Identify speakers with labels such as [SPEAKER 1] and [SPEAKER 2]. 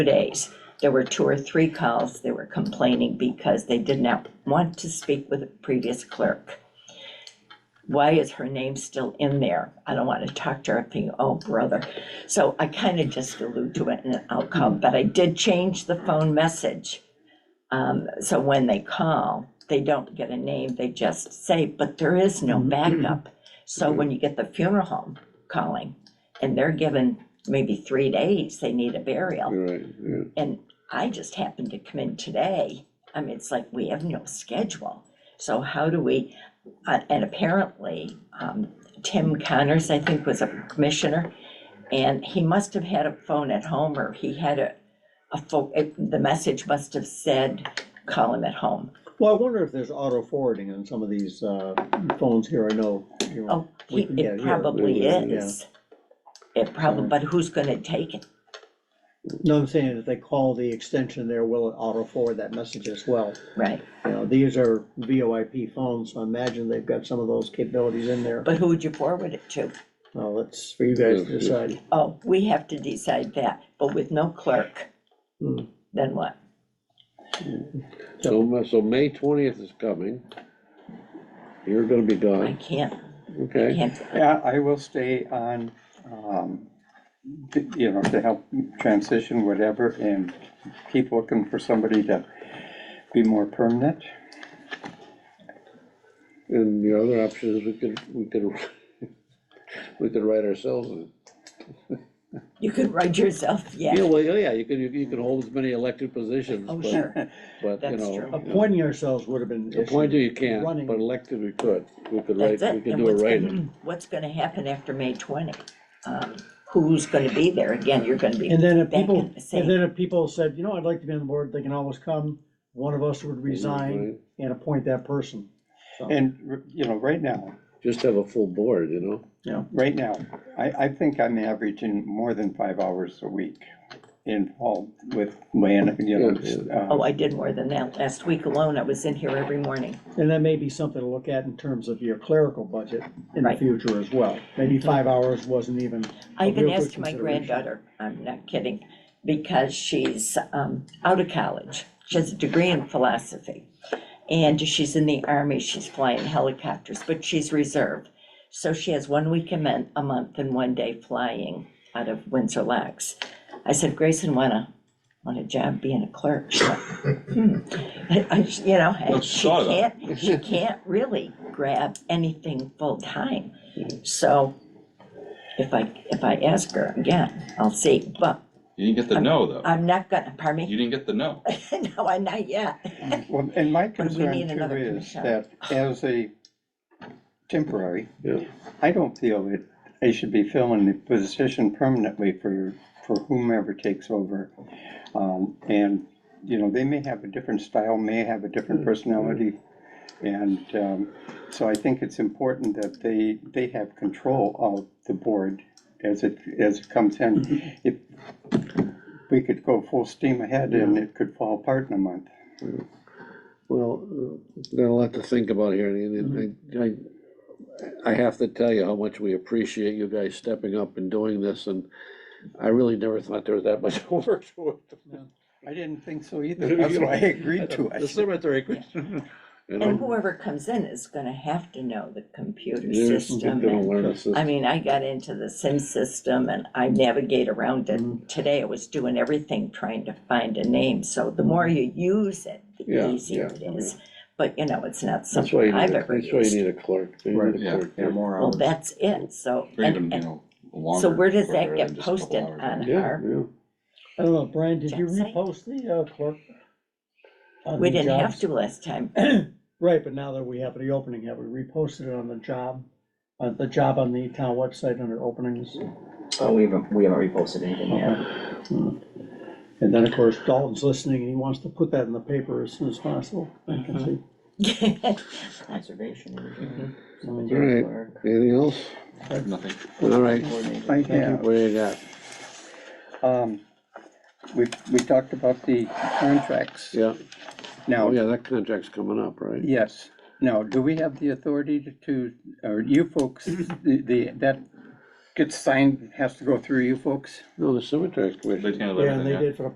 [SPEAKER 1] days, there were two or three calls, they were complaining because they did not want to speak with the previous clerk. Why is her name still in there? I don't want to talk to her, I'm thinking, oh, brother. So I kind of just allude to it and I'll call, but I did change the phone message. Um, so when they call, they don't get a name, they just say, but there is no backup. So when you get the funeral home calling and they're given maybe three days, they need a burial.
[SPEAKER 2] You're right, yeah.
[SPEAKER 1] And I just happened to come in today. I mean, it's like, we have no schedule. So how do we, uh, and apparently, um, Tim Connors, I think, was a commissioner. And he must have had a phone at home or he had a, a phone, the message must have said, call him at home.
[SPEAKER 3] Well, I wonder if there's auto forwarding on some of these uh, phones here, I know. you know,
[SPEAKER 1] Oh, he,
[SPEAKER 3] we can get
[SPEAKER 1] it
[SPEAKER 3] here.
[SPEAKER 1] probably
[SPEAKER 2] Yeah.
[SPEAKER 1] is. It probably, but who's gonna take it?
[SPEAKER 3] No, I'm saying if they call the extension there, will it auto forward that message as well?
[SPEAKER 1] Right,
[SPEAKER 3] You know, these are VoIP phones, so I imagine they've got some of those capabilities in there.
[SPEAKER 1] but who would you forward it to?
[SPEAKER 3] Well, that's for you guys to decide.
[SPEAKER 1] Oh, we have to decide that, but with no clerk,
[SPEAKER 3] Hmm.
[SPEAKER 1] then what?
[SPEAKER 2] So, ma- so May twentieth is coming. You're gonna be
[SPEAKER 1] I
[SPEAKER 2] gone,
[SPEAKER 1] can't, I
[SPEAKER 2] okay?
[SPEAKER 1] can't,
[SPEAKER 4] Yeah, I will stay on, um, to- you know, to help transition whatever and keep looking for somebody to be more permanent.
[SPEAKER 2] And the other option is we could, we could, we could write ourselves in.
[SPEAKER 1] you could write yourself,
[SPEAKER 2] Yeah,
[SPEAKER 1] yeah,
[SPEAKER 2] well, oh, yeah, you could, you- you could hold as many elected positions,
[SPEAKER 1] oh,
[SPEAKER 2] but,
[SPEAKER 1] sure,
[SPEAKER 2] but, you
[SPEAKER 1] That's
[SPEAKER 2] know.
[SPEAKER 1] true.
[SPEAKER 2] you know,
[SPEAKER 3] Appointing ourselves would have been.
[SPEAKER 2] Appointed you can't,
[SPEAKER 3] Running.
[SPEAKER 2] but elected we could. We could write,
[SPEAKER 1] that's
[SPEAKER 2] we
[SPEAKER 1] it.
[SPEAKER 2] could
[SPEAKER 1] And
[SPEAKER 2] do a
[SPEAKER 1] what's
[SPEAKER 2] write-in.
[SPEAKER 1] gonna, what's gonna happen after May twenty? Um, Who's gonna be there? Again, you're gonna be,
[SPEAKER 3] And then if
[SPEAKER 1] Back
[SPEAKER 3] people,
[SPEAKER 1] in the same.
[SPEAKER 3] and then if people said, you know, I'd like to be on the board, they can always come, one of us would resign and appoint that person. So,
[SPEAKER 4] And, you know, right now,
[SPEAKER 2] Just have a full board, you know?
[SPEAKER 3] Yeah,
[SPEAKER 4] right now, I, I think I'm averaging more than five hours a week involved with land, you know. s- uh,
[SPEAKER 1] oh, I did more than that. Last week alone, I was in here every morning.
[SPEAKER 3] and that may be something to look at in terms of your clerical budget in the
[SPEAKER 1] Right.
[SPEAKER 3] future as well. Maybe five hours wasn't even,
[SPEAKER 1] I
[SPEAKER 3] A
[SPEAKER 1] even
[SPEAKER 3] real good
[SPEAKER 1] asked my
[SPEAKER 3] consideration.
[SPEAKER 1] granddaughter, I'm not kidding, because she's um, out of college. She has a degree in philosophy. And she's in the army, she's flying helicopters, but she's reserve. So she has one week a month, a month and one day flying out of Windsor Locks. I said, Grayson, wanna, want a job being a clerk? She went, "Hmm." I- I- You know, and she
[SPEAKER 5] saw that.
[SPEAKER 1] can't, she can't really grab anything full-time. So if I, if I ask her again, I'll see, but
[SPEAKER 5] You didn't
[SPEAKER 1] Um,
[SPEAKER 5] get the no, though.
[SPEAKER 1] I'm not gonna, pardon
[SPEAKER 5] You
[SPEAKER 1] me?
[SPEAKER 5] didn't get the no.
[SPEAKER 1] No, I'm not yet.
[SPEAKER 4] Well, and my
[SPEAKER 1] But we need
[SPEAKER 4] concern too
[SPEAKER 1] another
[SPEAKER 4] is
[SPEAKER 1] commission.
[SPEAKER 4] that as a temporary,
[SPEAKER 2] Yeah.
[SPEAKER 4] I don't feel that they should be filling the position permanently for, for whomever takes over. Um, and, you know, they may have a different style, may have a different personality. And, um, so I think it's important that they, they have control of the board as it, as it comes in. If we could go full steam ahead and it could fall apart in a month.
[SPEAKER 2] Well, uh, got a lot to think about here, and- and I, I, I have to tell you how much we appreciate you guys stepping up and doing this, and I really never thought there was that much work to
[SPEAKER 4] I didn't think so either. That's why I agreed
[SPEAKER 2] it.
[SPEAKER 4] to
[SPEAKER 2] The
[SPEAKER 4] it.
[SPEAKER 2] cemetery. question, you
[SPEAKER 1] And
[SPEAKER 2] know,
[SPEAKER 1] whoever comes in is gonna have to know the computer
[SPEAKER 2] they're just
[SPEAKER 1] system.
[SPEAKER 2] gonna
[SPEAKER 1] and-
[SPEAKER 2] learn this
[SPEAKER 1] I
[SPEAKER 2] is-
[SPEAKER 1] mean, I got into the SIM system and I navigate around
[SPEAKER 2] Mm-hmm.
[SPEAKER 1] it. Today I was doing everything trying to find a name, so the more you use it,
[SPEAKER 2] Yeah,
[SPEAKER 1] the easier
[SPEAKER 2] yeah,
[SPEAKER 1] it is. But, you know, it's not
[SPEAKER 2] That's why
[SPEAKER 1] something
[SPEAKER 2] you need,
[SPEAKER 1] I've
[SPEAKER 2] a-
[SPEAKER 1] ever
[SPEAKER 2] that's why you
[SPEAKER 1] used.
[SPEAKER 2] need a clerk. You need
[SPEAKER 3] Right,
[SPEAKER 2] a
[SPEAKER 5] yeah,
[SPEAKER 2] clerk,
[SPEAKER 3] yeah, more
[SPEAKER 1] Well,
[SPEAKER 3] hours.
[SPEAKER 1] that's it, so.
[SPEAKER 5] Or
[SPEAKER 1] and-
[SPEAKER 5] even, you
[SPEAKER 1] and-
[SPEAKER 5] know, longer.
[SPEAKER 1] So where does that
[SPEAKER 5] shorter
[SPEAKER 1] get
[SPEAKER 5] than just a couple
[SPEAKER 1] posted
[SPEAKER 5] hours.
[SPEAKER 1] on
[SPEAKER 2] Yeah,
[SPEAKER 1] our,
[SPEAKER 2] yeah.
[SPEAKER 3] I don't know, Brian, did you
[SPEAKER 1] Jensing?
[SPEAKER 3] repost the uh, clerk? on
[SPEAKER 1] we
[SPEAKER 3] the
[SPEAKER 1] didn't have
[SPEAKER 3] jobs?
[SPEAKER 1] to last time.
[SPEAKER 3] Right, but now that we have the opening, have we reposted it on the job, uh, the job on the town website under openings?
[SPEAKER 6] Oh, we haven't, we haven't reposted anything yet.
[SPEAKER 3] Hmm. And then, of course, Dalton's listening and he wants to put that in the paper as soon as possible. I
[SPEAKER 6] Mm-hmm.
[SPEAKER 3] can see.
[SPEAKER 6] Conservation. Division,
[SPEAKER 2] All
[SPEAKER 6] cemetery
[SPEAKER 2] right,
[SPEAKER 6] clerk,
[SPEAKER 2] anything else?
[SPEAKER 5] Nothing.
[SPEAKER 2] All right,
[SPEAKER 6] coordinator.
[SPEAKER 4] I
[SPEAKER 2] what
[SPEAKER 4] have,
[SPEAKER 2] do you got?
[SPEAKER 4] um, we, we talked about the contracts.
[SPEAKER 2] Yeah, oh,
[SPEAKER 4] Now,
[SPEAKER 2] yeah, that contract's coming up, right?
[SPEAKER 4] yes, now, do we have the authority to- to, or you folks, the, the, that gets signed, has to go through you folks?
[SPEAKER 2] No, the cemetery
[SPEAKER 5] They
[SPEAKER 2] commission.
[SPEAKER 5] handle
[SPEAKER 3] Yeah, and
[SPEAKER 5] everything,
[SPEAKER 3] they
[SPEAKER 5] yeah.
[SPEAKER 3] did for the